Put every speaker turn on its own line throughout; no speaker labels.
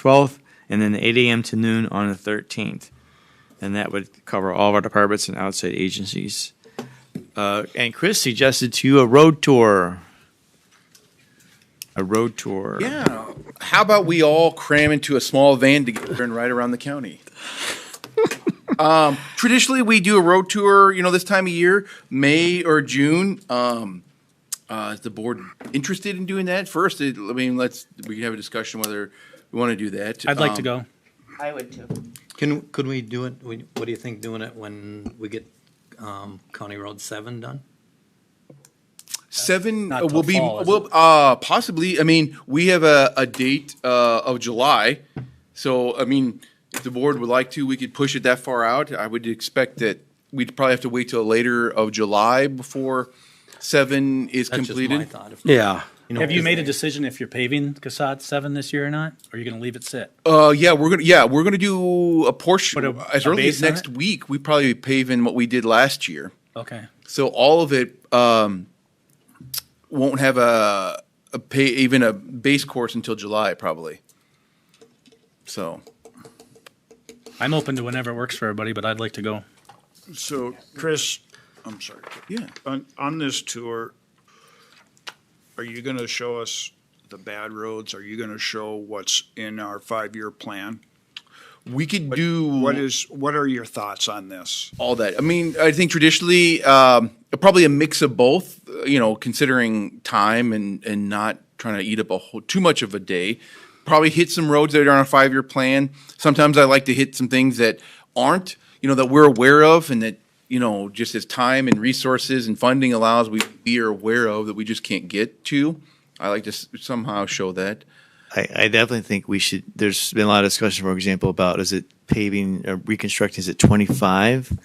12th, and then 8 a.m. to noon on the 13th. And that would cover all of our departments and outside agencies. Uh, and Chris suggested to you a road tour. A road tour.
Yeah. How about we all cram into a small van together and ride around the county? um, traditionally, we do a road tour, you know, this time of year, May or June. Um, uh, is the board interested in doing that? First, it, I mean, let's, we can have a discussion whether we want to do that.
I'd like to
Um,
go.
I would too.
Can, could we do it, we- what do you think doing it when we get um, County Road 7 done?
Seven
Not
uh, will
till
be,
fall, is
will, uh, possibly, I mean, we have a, a date, uh, of July. So, I mean, if the board would like to, we could push it that far out. I would expect that we'd probably have to wait till later of July before seven is
That's just my
completed.
thought. If-
Yeah.
know,
Have you
because
made a
they-
decision if you're paving Casad seven this year or not? Or are you gonna leave it sit?
Uh, yeah, we're gonna, yeah, we're gonna do a portion,
Put a-
as
a
early as
base on
next
it?
week, we probably pave in what we did last year.
Okay.
So all of it um, won't have a, a pay, even a base course until July probably. So
I'm open to whenever it works for everybody, but I'd like to go.
So, Chris, I'm sorry.
yeah,
On, on this tour, are you going to show us the bad roads? Are you going to show what's in our five-year plan?
we could do
What is, what are your thoughts on this?
all that. I mean, I think traditionally um, probably a mix of both. uh, You know, considering time and and not trying to eat up a whole too much of a day. Probably hit some roads that are on a five year plan. Sometimes I like to hit some things that aren't. You know, that we're aware of and that you know just as time and resources and funding allows, we we are aware of that we just can't get to. I like to s- somehow show that.
I, I definitely think we should. There's been a lot of discussion, for example, about is it paving, uh, reconstructing, is it 25?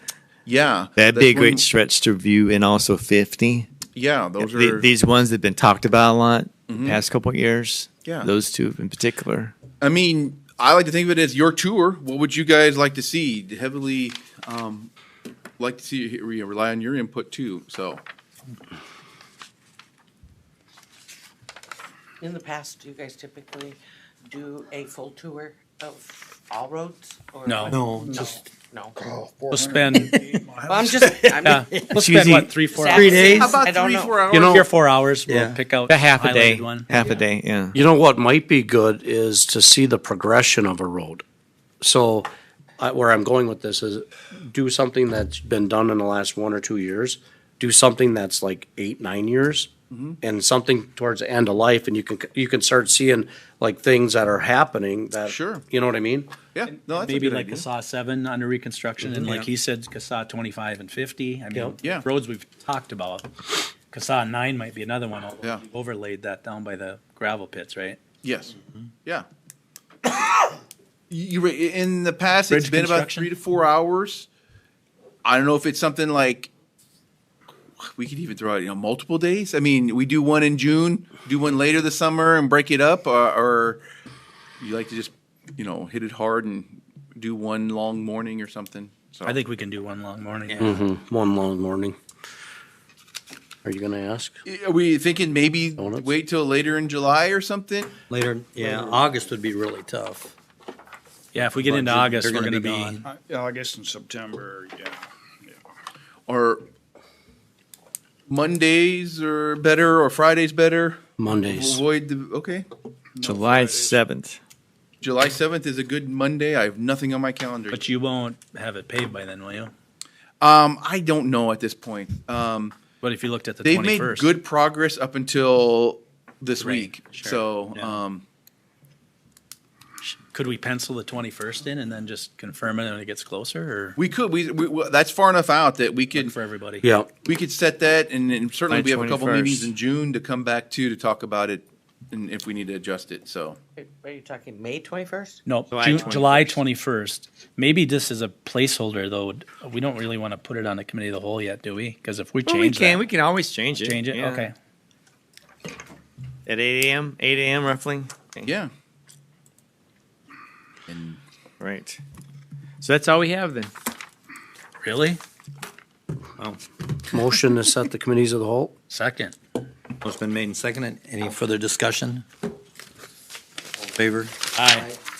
Yeah,
That'd be a
that's one-
great stretch to view, and also 50.
Yeah, those
The-
are Mm-hmm.
these ones that have been talked about a lot the past couple of years.
Yeah.
Those two in particular.
I mean, I like to think of it as your tour. What would you guys like to see? Heavily um, like to see we rely on your input too. So
In the past, do you guys typically do a full tour of all roads? or-
No.
No, just-
No.
We'll spend,
Well, I'm just, I
yeah,
mean.
we'll spend what, three, four hours?
days?
How about
I
three,
don't
four
know.
hours?
You know, here four hours, we'll
Yeah.
pick out.
A half a day.
highlighted One.
Half a day, yeah.
You know what might be good is to see the progression of a road. So, I, where I'm going with this is do something that's been done in the last one or two years. Do something that's like eight, nine years, and something towards the end of life, and you can you can start seeing like things that are happening. That
Sure.
you know what I mean.
yeah, no, that's
Maybe
a good
like
idea.
Casad seven under reconstruction and like
Yeah.
he said, Casad twenty-five and fifty. I mean,
Yeah.
roads we've talked about. Casad nine might be another one. although
Yeah.
we Overlaid that down by the gravel pits, right?
Yes,
Mm-hmm.
yeah. You were in the past. it's
Bridge
been about
construction?
three to four hours. I don't know if it's something like we could even throw out, you know, multiple days. I mean, we do one in June, do one later this summer, and break it up, or, or you like to just, you know, hit it hard and do one long morning or something. So
I think we can do one long morning.
One long morning. Are you gonna ask?
are we thinking maybe
Donuts?
wait till later in July or something?
Later, yeah, August would be really tough.
Yeah, if we get into
They're
August, we're
gonna
gonna
be
be,
gone.
Uh, August and September, yeah.
Or Mondays are better, or Fridays better?
Mondays.
Avoid the okay.
July 7th.
July seventh is a good Monday. I have nothing on my calendar.
but you won't have it paved by then, will you?
Um, I don't know at this point. Um,
But if you looked at the
they've made
twenty-first.
good progress up until this
Right,
week.
sure,
So,
yeah.
um,
Could we pencil the twenty-first in and then just confirm it when it gets closer
we could we, we, we that's far enough out that we
or
could
for everybody?
Yeah.
we could set that, and, and certainly
By
we have a couple
21st.
meetings in June to come back to to talk about it, and if we need to adjust it. So.
Are you talking May twenty-first?
No,
July
Ju- July twenty-first. Maybe this is a placeholder, though. We don't really want to put it on the committee of the whole yet, do we? Because if we
Well, we
change
can.
that,
We can always change it.
change it,
yeah.
okay.
At 8 a.m., 8 a.m. roughly.
Yeah.
Right. So that's all we have then.
Really?
Motion to set the committees of the whole.
Second.
It's been made and seconded. Any further discussion? All in Favor?
Aye.